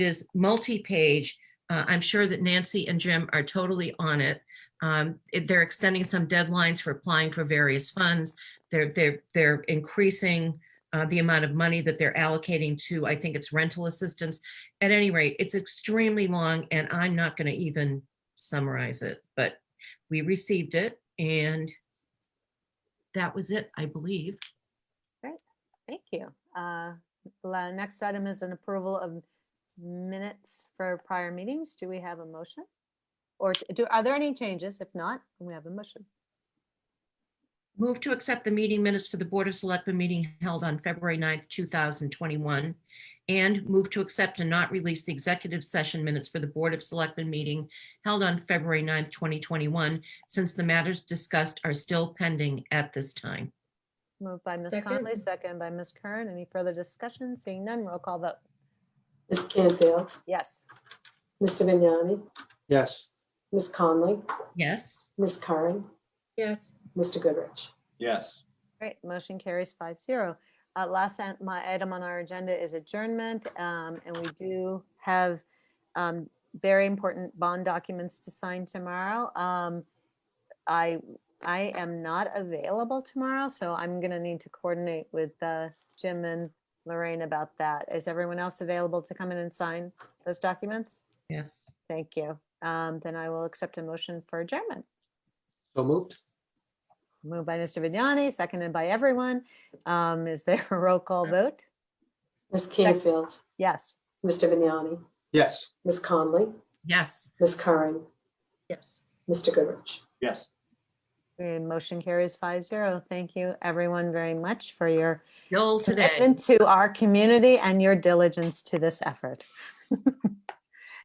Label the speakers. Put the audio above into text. Speaker 1: is multi-page. Uh, I'm sure that Nancy and Jim are totally on it. Um, it- They're extending some deadlines for applying for various funds. They're, they're, they're increasing uh, the amount of money that they're allocating to, I think it's rental assistance. At any rate, it's extremely long and I'm not going to even summarize it, but we received it and that was it, I believe.
Speaker 2: Thank you. Uh, la- Next item is an approval of minutes for prior meetings. Do we have a motion? Or t- do, are there any changes? If not, we have a motion.
Speaker 1: Move to accept the meeting minutes for the Board of Selectmen meeting held on February 9th, 2021. And move to accept and not release the executive session minutes for the Board of Selectmen meeting held on February 9th, 2021, since the matters discussed are still pending at this time.
Speaker 2: Moved by Ms.
Speaker 3: Second.
Speaker 2: Conley, second by Ms. Kern. Any further discussion? Seeing none, roll call vote.
Speaker 3: Ms. Canfield,
Speaker 2: Yes.
Speaker 3: Mr. Vignani,
Speaker 4: Yes,
Speaker 3: Ms. Conley,
Speaker 1: Yes,
Speaker 3: Ms. Curran,
Speaker 5: Yes,
Speaker 3: Mr. Goodrich.
Speaker 6: Yes,
Speaker 2: Great, motion carries five zero. Uh, last an- my item on our agenda is adjournment, um, and we do have, um, very important bond documents to sign tomorrow. Um, I, I am not available tomorrow, so I'm gonna need to coordinate with, uh, Jim and Lorraine about that. Is everyone else available to come in and sign those documents?
Speaker 1: yes.
Speaker 2: Thank you. Um, then I will accept a motion for adjournment.
Speaker 4: so moved.
Speaker 2: Moved by Mr. Vignani, seconded by everyone. Um, is there a roll call vote?
Speaker 3: Ms. Canfield,
Speaker 2: Yes.
Speaker 3: Mr. Vignani,
Speaker 4: Yes.
Speaker 3: Ms. Conley,
Speaker 1: Yes.
Speaker 3: Ms. Curran,
Speaker 5: yes.
Speaker 3: Mr. Goodrich.
Speaker 6: yes.
Speaker 2: And motion carries five zero. Thank you, everyone, very much for your
Speaker 1: Joel today.
Speaker 2: commitment to our community and your diligence to this effort.